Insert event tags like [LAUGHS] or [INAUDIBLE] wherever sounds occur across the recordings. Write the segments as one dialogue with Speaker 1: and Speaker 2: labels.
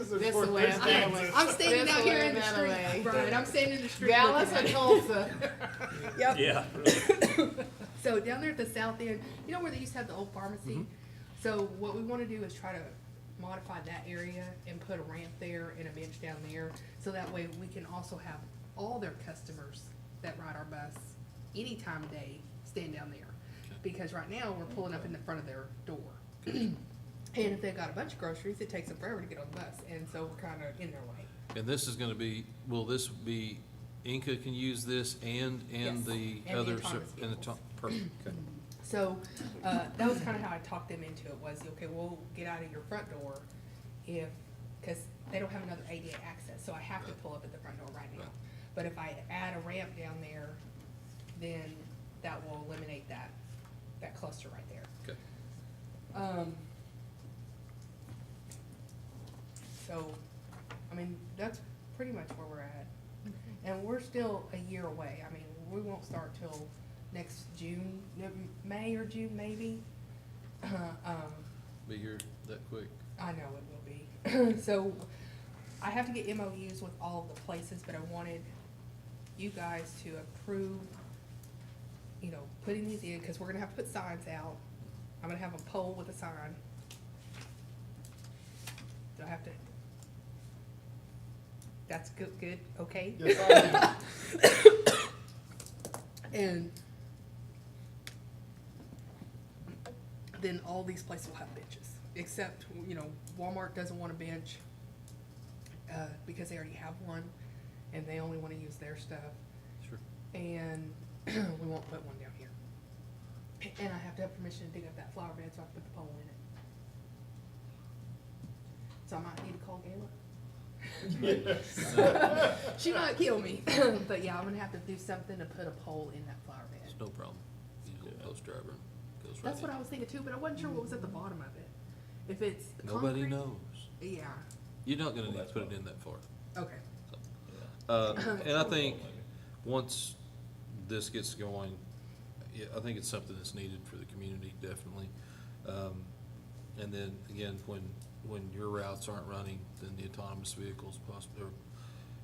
Speaker 1: is
Speaker 2: This
Speaker 1: where
Speaker 2: way,
Speaker 1: this
Speaker 2: that
Speaker 1: ends.
Speaker 2: way.
Speaker 3: I'm standing
Speaker 2: This
Speaker 3: out here
Speaker 2: way,
Speaker 3: in the
Speaker 2: that way.
Speaker 3: street, Brian, I'm standing in the street.
Speaker 2: Dallas
Speaker 3: looking
Speaker 2: or
Speaker 3: at it. [LAUGHS]
Speaker 2: Tulsa?
Speaker 3: Yep.
Speaker 4: Yeah.
Speaker 3: [LAUGHS] So down there at the south end, you know where they used to have the old pharmacy? So what we wanna do is try to modify that area and put a ramp there and a bench down there. So that way we can also have all their customers that ride our bus any time of day stand down there. Because right now, we're pulling up in the front of their door. [CLEARS THROAT] And if they've got a bunch of groceries, it takes them forever to get on the bus, and so we're kinda in their way.
Speaker 5: And this is gonna be, will this be, Inca can use this and,
Speaker 3: Yes,
Speaker 5: and the
Speaker 3: and the
Speaker 5: other,
Speaker 3: autonomous
Speaker 5: and the
Speaker 3: vehicles.
Speaker 5: top, perfect,
Speaker 3: [CLEARS THROAT]
Speaker 5: okay.
Speaker 3: So, uh, that was kinda how I talked them into it, was, okay, we'll get out of your front door if, cause they don't have another ADA access, so I have to pull up at the front door right now. But if I add a ramp down there, then that will eliminate that, that cluster right there.
Speaker 5: Okay.
Speaker 3: Um, so, I mean, that's pretty much where we're at. And we're still a year away. I mean, we won't start till next June, no, May or June maybe. Um,
Speaker 5: Be here that quick.
Speaker 3: I know it will be. [CLEARS THROAT] So I have to get MOUs with all of the places, but I wanted you guys to approve, you know, putting these in, because we're gonna have to put signs out. I'm gonna have a pole with a sign. Do I have to? That's good, good, okay?
Speaker 1: Yes,
Speaker 3: And then all these places will have benches, except, you know, Walmart doesn't want a bench, uh, because they already have one, and they only wanna use their stuff.
Speaker 5: Sure.
Speaker 3: And [CLEARS THROAT] we won't put one down here. And I have to have permission to dig up that flower bed, so I can put the pole in it. So I might need to call Gayla.
Speaker 1: I
Speaker 3: [LAUGHS] She might kill me, [CLEARS THROAT] but yeah, I'm gonna have to do something to put a pole in that flower bed.
Speaker 5: It's no problem. You go
Speaker 4: Yeah.
Speaker 5: post driver, goes right
Speaker 3: That's what
Speaker 5: in.
Speaker 3: I was thinking too, but I wasn't sure what was at the bottom of it. If it's
Speaker 5: Nobody
Speaker 3: concrete-
Speaker 5: knows.
Speaker 3: Yeah.
Speaker 5: You're not gonna
Speaker 4: Well,
Speaker 5: need to
Speaker 4: that's
Speaker 5: put it
Speaker 4: fine.
Speaker 5: in that far.
Speaker 3: Okay.
Speaker 5: Uh,
Speaker 3: [COUGHS]
Speaker 5: and [LAUGHS] I think, once this gets going, yeah, I think it's something that's needed for the community, definitely. Um, and then, again, when, when your routes aren't running, then the autonomous vehicles possibly, or,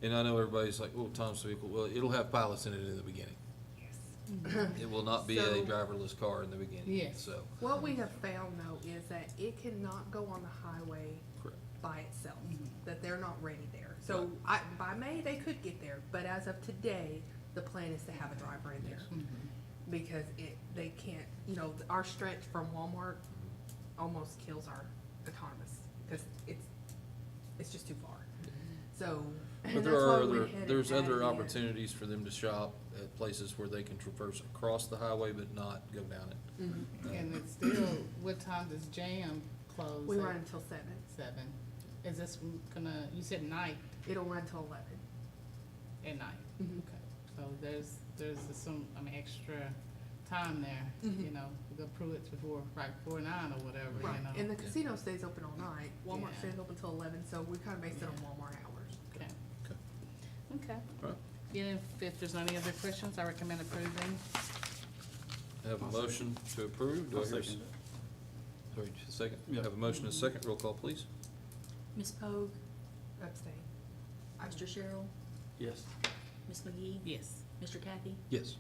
Speaker 5: and I know everybody's like, oh, autonomous vehicle, well, it'll have pilots in it in the beginning.
Speaker 3: Yes.
Speaker 5: It will not be a
Speaker 3: So-
Speaker 5: driverless car in the beginning,
Speaker 2: Yes.
Speaker 5: so,
Speaker 3: What we have found though is that it cannot go on the highway
Speaker 5: correct.
Speaker 3: by itself, that they're not ready there. So I, by May, they could get there, but as of today, the plan is to have a driver in there. Because it, they can't, you know, our stretch from Walmart almost kills our autonomous, because it's, it's just too far. So.
Speaker 5: Mm-hmm. But
Speaker 3: that's
Speaker 5: there are
Speaker 3: why we
Speaker 5: other,
Speaker 3: had it
Speaker 5: there's
Speaker 3: added
Speaker 5: other
Speaker 3: in.
Speaker 5: opportunities for them to shop at places where they can traverse across the highway but not go down it.
Speaker 2: And it's still, what time does jam close?
Speaker 3: We
Speaker 2: at?
Speaker 3: run until seven.
Speaker 2: Seven. Is this gonna, you said night
Speaker 3: It'll run till eleven.
Speaker 2: at night?
Speaker 3: Mhm.
Speaker 2: Okay. So there's, there's some, I mean, extra time there, you know, we go through it before, right before nine or whatever, you
Speaker 3: Mm-hmm. Right. And
Speaker 2: know?
Speaker 3: the casino stays open all night. Walmart
Speaker 2: Yeah.
Speaker 3: stays open till eleven, so we kind of based it on Walmart hours.
Speaker 2: Okay.
Speaker 5: Okay.
Speaker 2: Okay.
Speaker 5: Right.
Speaker 2: Yeah, if- if there's any other questions, I recommend approving.
Speaker 5: Have a motion to approve. Do I hear a s- Sorry, just a second.
Speaker 4: Yeah.
Speaker 5: Have a motion and a second. Roll call, please.
Speaker 6: Ms. Pogue,
Speaker 3: Abstain.
Speaker 6: Mr. Cheryl,
Speaker 4: Yes.
Speaker 6: Ms. McGee,
Speaker 2: Yes.
Speaker 6: Mr. Kathy.
Speaker 5: Yes.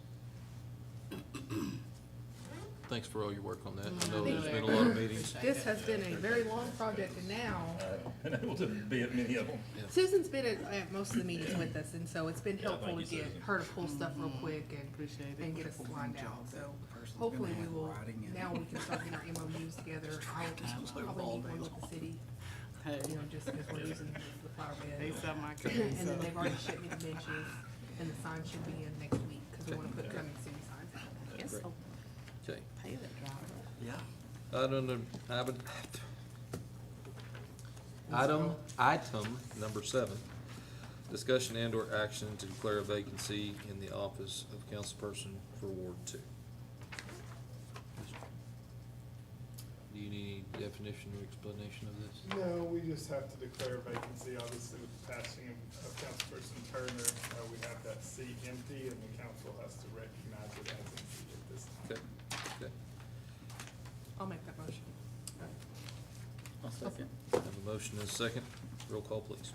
Speaker 5: Thanks for all your work on that. I know
Speaker 2: Mm,
Speaker 5: there's been a
Speaker 2: there.
Speaker 5: lot of meetings.
Speaker 3: This has been a very long project and now
Speaker 4: [LAUGHS] And able Uh, to be at many of them.
Speaker 3: Susan's been at, at most of the meetings with us and so it's been
Speaker 4: Yeah,
Speaker 3: helpful to
Speaker 4: thank you,
Speaker 3: get
Speaker 4: Susan.
Speaker 3: her to pull stuff real quick and,
Speaker 2: Mm-hmm. Appreciate it.
Speaker 3: and get us lined out. So hopefully we will, now we can start getting our MOUs together. I'll probably need one with the city, uh,
Speaker 2: Hey,
Speaker 3: you know, just because we're using the flower bed.
Speaker 2: They sell my
Speaker 3: And
Speaker 2: kids,
Speaker 3: then
Speaker 2: so.
Speaker 3: they've already shipped me the benches, and the sign should be in next week, because we want to put coming soon signs out.
Speaker 2: Yes, I'll
Speaker 5: Okay.
Speaker 2: pay that driver.
Speaker 4: Yeah.
Speaker 5: Item, num- item, item, item number seven. Discussion and or action to declare a vacancy in the office of councilperson for Ward Two. Do you need any definition or explanation of this?
Speaker 1: No, we just have to declare vacancy, obviously with the passing of of Councilperson Turner, uh, we have that seat empty and the council has to recognize it as empty at this time.
Speaker 5: Okay, okay.
Speaker 3: I'll make that motion.
Speaker 4: I'll second.
Speaker 5: Have a motion and a second. Roll call, please.